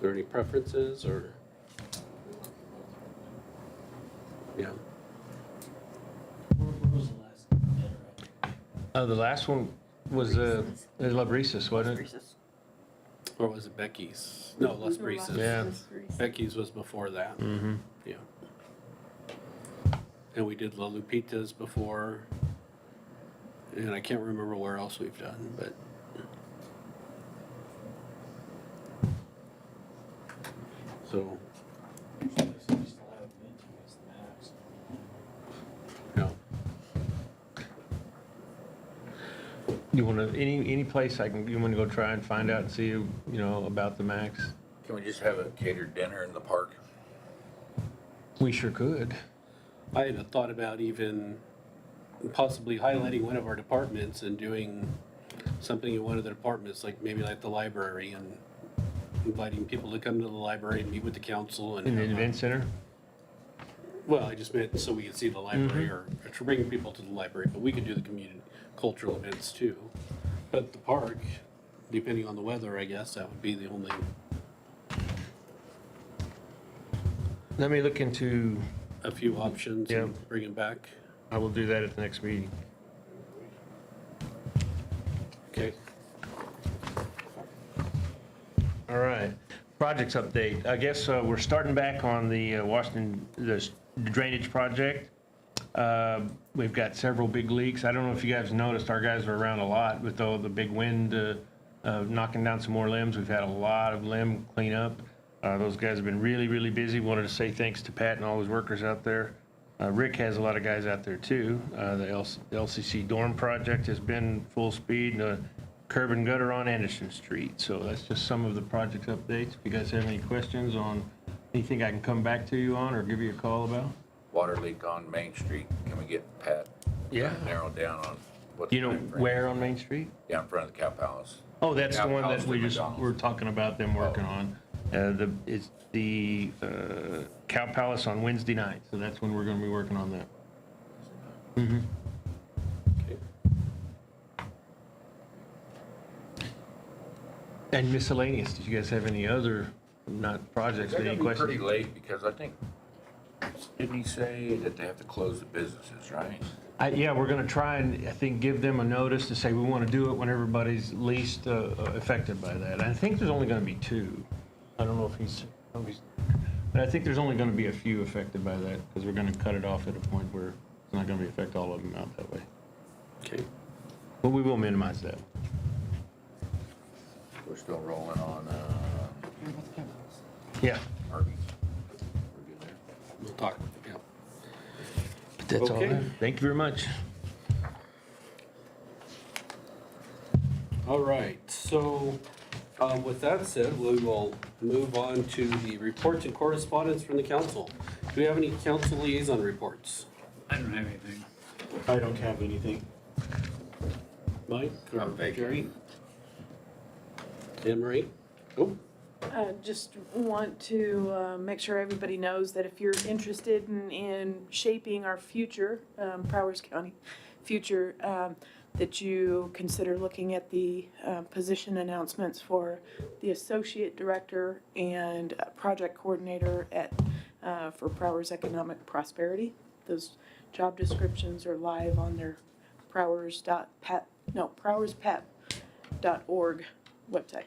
there any preferences or? Yeah, When was the last bid, Uh, the last one was, uh, La Brisas, wasn't it? Reese's. or was it Becky's? No, Las Brisas. Yeah. Becky's was before that, Mm-hmm. yeah. And we did La Lupita's before. And I can't remember where else we've done, but so, right? Usually it's just allowed bid to us the max. no. You wanna, any, any place I can, you wanna go try and find out and see, you know, about the max? Can we just have a catered dinner in the park? We sure could. I had a thought about even possibly highlighting one of our departments and doing something in one of the departments, like maybe like the library and inviting people to come to the library and meet with the council In the and, event center? well, I just meant so we could see the Mm-hmm. library or to bring people to the library, but we could do the community cultural events too. But the park, depending on the weather, I guess, that would be the only, Let me look into, a few options and Yeah. bring it back. I will do that at the next meeting. Okay. All right, projects update. I guess uh, we're starting back on the uh, Washington, the s- drainage project. Uh, We've got several big leaks. I don't know if you guys noticed, our guys are around a lot with all the big wind uh, uh, knocking down some more limbs. We've had a lot of limb cleanup. Uh, Those guys have been really, really busy. Wanted to say thanks to Pat and all his workers out there. Uh, Rick has a lot of guys out there too. Uh, The LC LCC dorm project has been full speed. Uh, curb and gutter on Anderson Street. So that's just some of the project updates. If you guys have any questions on anything I can come back to you on or give you a call about? Water leak on Main Street, can we get Pat? Yeah. Narrowed down on what. You know timeframe? where on Main Street? Down in front of the cow palace. Oh, that's the Yeah, one that Palestine we just, McDonald's. Oh. we're talking about them working on. Uh, the, it's the, uh, Cow Palace on Wednesday night. So that's when we're gonna be working on that. Mhm. Okay. And miscellaneous, did you guys have any other, not projects, They're but any gonna be pretty questions? late because I think, didn't he say that they have to close the businesses, right? I, yeah, we're gonna try and, I think, give them a notice to say we wanna do it when everybody's least uh, affected by that. I think there's only gonna be two. I don't know if he's, I don't know if he's- but I think there's only gonna be a few affected by that, because we're gonna cut it off at a point where it's not gonna be affect all of them out that way. Okay. But we will minimize that. We're still rolling on, uh, Yeah. Harvey. We're good there. We'll talk, yeah. But that's all. I Okay. have. Thank you very much. All right, so um, with that said, we will move on to the reports and correspondence from the council. Do we have any council liaison reports? I don't have anything. I don't have anything. Mike or Jerry? Anne Marie? Oh, Uh, Just want to uh, make sure everybody knows that if you're interested in, in shaping our future, um, Powers County future, um, that you consider looking at the uh, position announcements for the associate director and uh, project coordinator at, uh, for Powers Economic Prosperity. Those job descriptions are live on their Powers dot pep, no, PowersPep dot org website.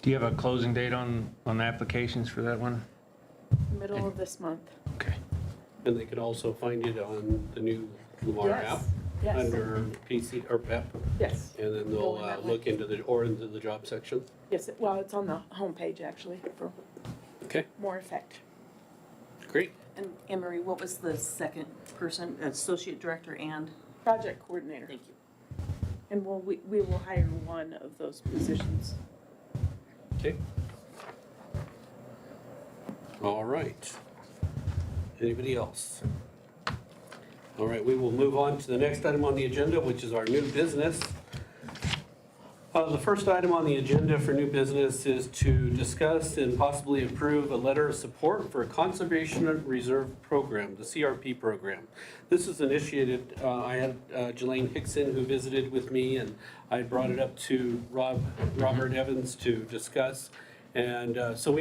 Do you have a closing date on, on the applications for that one? Middle of this month. Okay. and they could also find it on the new Lamar app Yes, under PC or PEP, yes, and then Go they'll in uh, that way. look into the, or into the job section. yes. it- Well, it's on the homepage actually for Okay, more effect. great. And Emery, what was the second person, associate director and? Project coordinator. Thank you. And we'll, we, we will hire one of those positions. Okay. All right. Anybody else? All right, we will move on to the next item on the agenda, which is our new business. Uh, The first item on the agenda for new business is to discuss and possibly approve a letter of support for a Conservation Reserve Program, the CRP program. This is initiated, uh, I had uh, Jelaine Hickson who visited with me, and I brought it up to Rob, Robert Evans to discuss. And uh, so we